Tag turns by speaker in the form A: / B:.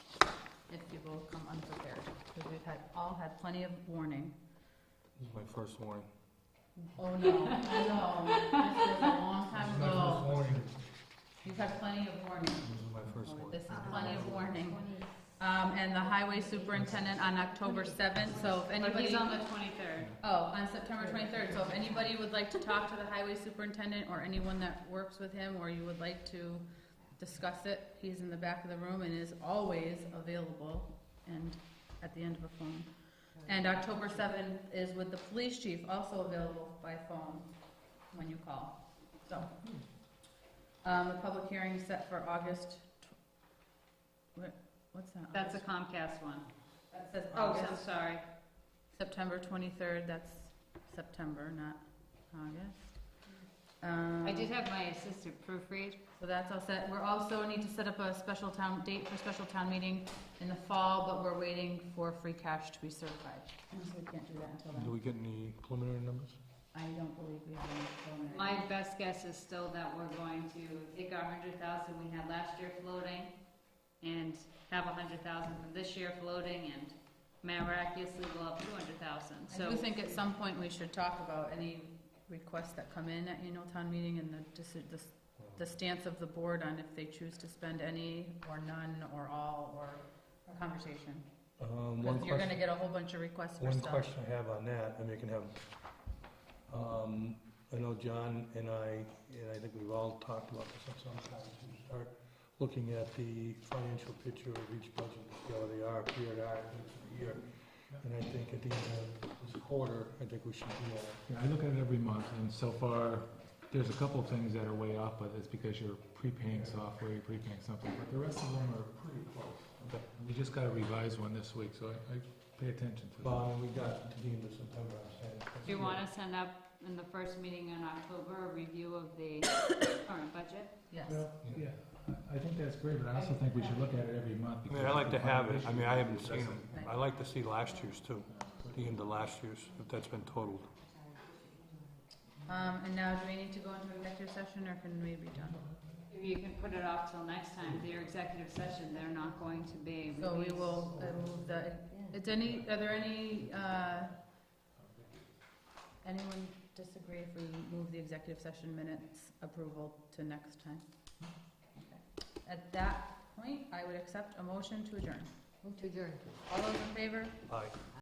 A: had, all had plenty of warning.
B: My first warning.
A: Oh, no, no, this was a long time ago. You've had plenty of warning.
B: This is my first
A: Oh,
B: warning.
A: This is plenty of warning. Um, and the highway superintendent on October seventh, so if
C: But he's
A: anybody,
C: on the twenty-third.
A: oh, on September twenty-third, so if anybody would like to talk to the highway superintendent or anyone that works with him, or you would like to discuss it, he's in the back of the room and is always available and at the end of a phone. And October seventh is with the police chief, also available by phone when you call, so. Um, the public hearing is set for August, tw- what- what's that?
C: That's a Comcast one.
A: That says
C: Oh, I'm
A: August,
C: sorry.
A: September twenty-third, that's September, not August.
C: I
A: Um,
C: did have my assistant proofread.
A: So that's all set. We're also need to set up a special town, date for special town meeting in the fall, but we're waiting for free cash to be certified. So we can't do that until
B: Do
A: then.
B: we get any preliminary numbers?
A: I don't believe we have any preliminary.
C: My best guess is still that we're going to take our hundred thousand we had last year floating and have a hundred thousand from this year floating and miraculously we'll have two hundred thousand, so.
A: I do think at some point we should talk about any requests that come in at annual town meeting and the, deci- the, the stance of the board on if they choose to spend any or none or all or a conversation.
B: Um, one
A: Because you're gonna
B: question,
A: get a whole bunch of requests for
B: one
A: stuff.
B: question I have on that, I mean, you can have, um, I know John and I, and I think we've all talked about this at some time, to start looking at the financial picture of each budget, see how they are, period, are, each year. And I think at the end of this quarter, I think we should do that.
D: Yeah, I look at it every month, and so far, there's a couple of things that are way off, but it's because you're prepaying software, you're prepaying something, but the rest of them are pretty close. We just got a revised one this week, so I, I pay attention to that.
B: Bob, we got to the end of September, I'm saying.
C: Do you wanna send up in the first meeting in October, a review of the current budget?
A: Yes.
D: Well, Yeah, I, I think that's great, but I also think we should look at it every
B: I
D: month.
B: mean,
D: because
B: I like to
D: it's a
B: have it,
D: combination.
B: I mean, I haven't seen them,
A: Right.
B: I like to see last year's too, the end of last year's, if that's been totaled.
A: Um, and now, do we need to go into executive session, or can we be done?
C: If you can put it off till next time, their executive session, they're not going to be
A: So we
C: released.
A: will, I move the, is any, are there any, uh, anyone disagree if we move the executive session minutes approval to next time? Okay. At that point, I would accept a motion to adjourn.
E: Move to adjourn.
A: All those in favor?
B: Aye.